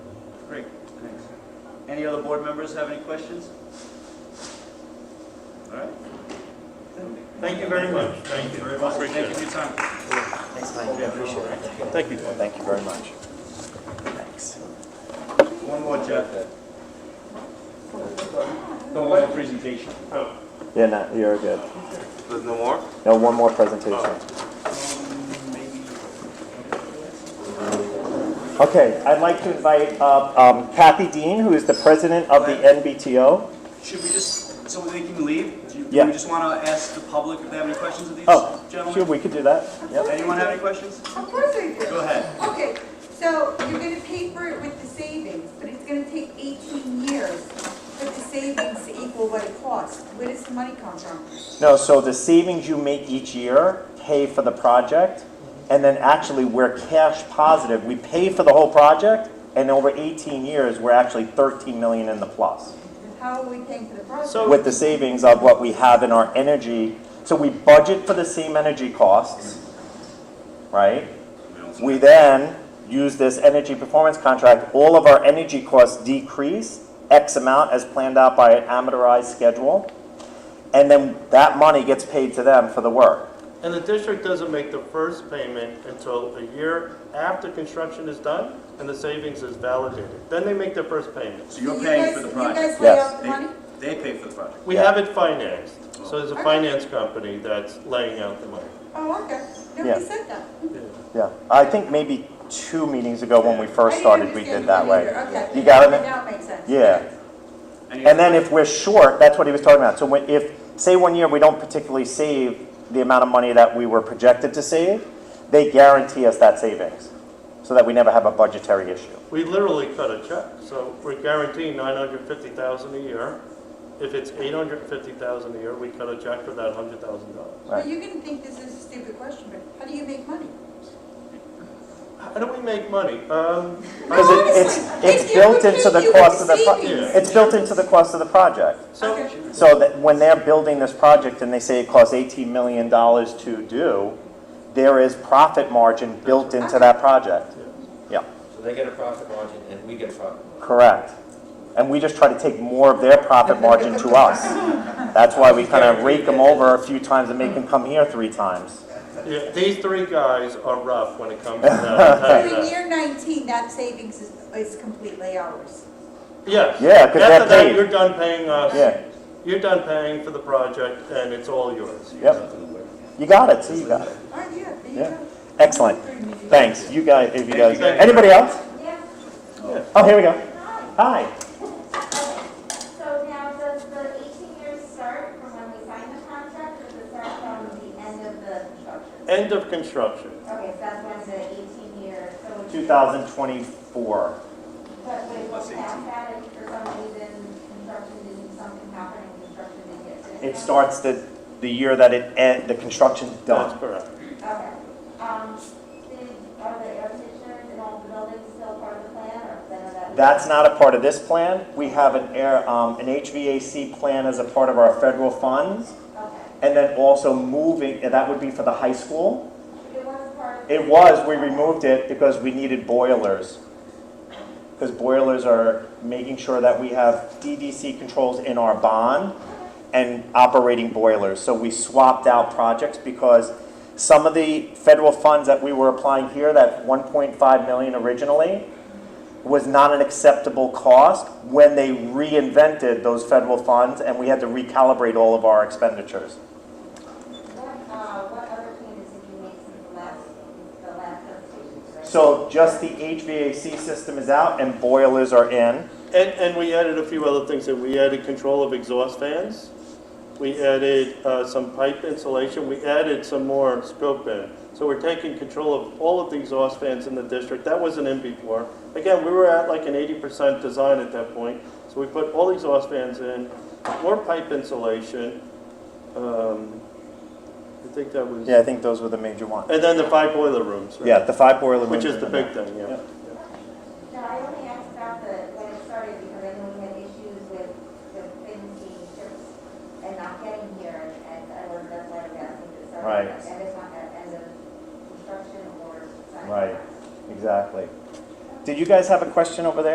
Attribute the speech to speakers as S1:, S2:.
S1: Great, thanks. Any other board members have any questions? All right. Thank you very much.
S2: Thank you very much.
S1: Thank you for your time.
S3: Thanks, Mike, I appreciate it.
S1: Thank you.
S3: Well, Thank you very much. Thanks.
S1: One more, Jeff. One more presentation.
S3: Yeah, no, you're good.
S4: There's no more?
S3: No, one more presentation. Okay, I'd like to invite up um, Kathy Dean, who is the president of the NBTO.
S1: Should we just, so they can leave? Do you- do
S3: Yeah.
S1: we just want to ask the public if they have any questions of these
S3: Oh, sure,
S1: gentlemen?
S3: we could do that. Yep.
S1: Anyone have any questions?
S5: Of course I do.
S1: Go ahead.
S5: Okay, so you're gonna pay for it with the savings, but it's gonna take eighteen years for the savings to equal what it costs. Where does the money come from?
S3: No, so the savings you make each year pay for the project, and then actually we're cash positive. We pay for the whole project, and over 18 years, we're actually 13 million in the plus.
S5: How are we paying for the project?
S2: So-
S3: with the savings of what we have in our energy. So we budget for the same energy costs, right? We then use this energy performance contract, all of our energy costs decrease X amount as planned out by an amortized schedule. And then that money gets paid to them for the work.
S2: And the district doesn't make the first payment until a year after construction is done and the savings is validated. Then they make their first payment.
S1: So you're
S5: You
S1: paying
S5: guys-
S1: for the
S5: You
S1: project?
S5: guys lay
S3: Yes.
S5: out the money?
S1: They they pay for the project.
S2: We
S3: Yeah.
S2: have it financed, so there's a finance company that's laying out the money.
S5: Oh, okay.
S3: Yeah.
S5: Nobody said that.
S3: Yeah, I think maybe two meetings ago when we
S5: I
S3: first
S5: didn't
S3: started, we
S5: understand
S3: did that
S5: the
S3: way.
S5: money either. Okay.
S3: You got it?
S5: Now it makes sense.
S3: Yeah.
S1: Any
S3: And
S1: other-
S3: then if we're short, that's what he was talking about. So when, if, say one year we don't particularly save the amount of money that we were projected to save, they guarantee us that savings, so that we never have a budgetary issue.
S2: We literally cut a check, so we're guaranteeing nine hundred fifty thousand a year. If it's eight hundred fifty thousand a year, we cut a check for that hundred thousand dollars.
S5: Well, you're gonna think this is a stupid question, but how do you make money?
S2: How do we make money? Um,
S3: Because
S5: No,
S3: it- it's,
S5: honestly, if
S3: it's
S5: you
S3: built into
S5: would
S3: the
S5: do
S3: cost of the,
S5: it,
S3: pro-
S5: savings.
S3: it's built into the cost of the project.
S2: so,
S5: Okay.
S3: So that when they're building this project and they say it costs eighteen million dollars to do, there is profit margin built into that project. Yeah.
S6: So they get a profit margin and we get a profit margin.
S3: Correct. And we just try to take more of their profit margin to us. That's why we kind of rake them over a few times and make them come here three times.
S2: yeah, these three guys are rough when it comes to that. I'll tell you
S5: So
S2: that.
S5: in year nineteen, that savings is, is completely ours.
S2: Yes.
S3: Yeah, 'cause they're
S2: After that,
S3: paid.
S2: you're done paying us.
S3: Yeah,
S2: You're done paying for the project, and it's all yours.
S3: yep. You got it, see, you got it.
S5: All right, yeah, there you
S3: Yeah.
S5: go.
S3: Excellent. Thanks, you guys, if you guys, anybody else?
S7: Yeah,
S3: Oh, here we go.
S7: hi.
S3: Hi.
S7: So now, does the 18 years start from when we sign the contract, or does it start from the end of the construction?
S2: End of construction.
S7: Okay, so that's when the 18 years, so. would you-
S3: 2024.
S7: But we will pass that if for some reason construction didn't, something happened and construction didn't get finished?
S3: It starts the, the year that it, end- the construction's
S2: That's
S3: done.
S2: correct.
S7: Okay. Um, did, are the air conditioners and all the buildings still part of the plan, or is none of that?
S3: That's not a part of this plan. We have an air, um, an HVAC plan as a part of our federal funds.
S7: Okay.
S3: And then also moving, and that would be for the high school.
S7: It was part of.
S3: It was, we removed it because we needed boilers. Because boilers are making sure that we have DDC controls in our bond and operating boilers. So we swapped out projects because some of the federal funds that we were applying here, that 1.5 million originally, was not an acceptable cost when they reinvented those federal funds and we had to recalibrate all of our expenditures.
S7: What, uh, what other changes did you make since the last, the last presentation? right?
S3: So just the HVAC system is out and boilers are in.
S2: And, and we added a few other things, that we added control of exhaust fans. We added uh, some pipe insulation, we added some more scope in. So we're taking control of all of the exhaust fans in the district, that wasn't in before. Again, we were at like an eighty percent design at that point, so we put all the exhaust fans in, more pipe insulation. Um, I think that was,
S3: Yeah, I think those were the major ones.
S2: and then the five boiler rooms, right?
S3: Yeah, the five boiler rooms.
S2: Which is the
S3: and
S2: big thing, yeah.
S7: No, I only asked about the, when it started, because I know we had issues with, with things being shipped and not getting here, and- and I was, that's why I was asking to start.
S3: Right.
S7: And it's not at end of construction or sign.
S3: Right. Exactly. Did you guys have a question over there?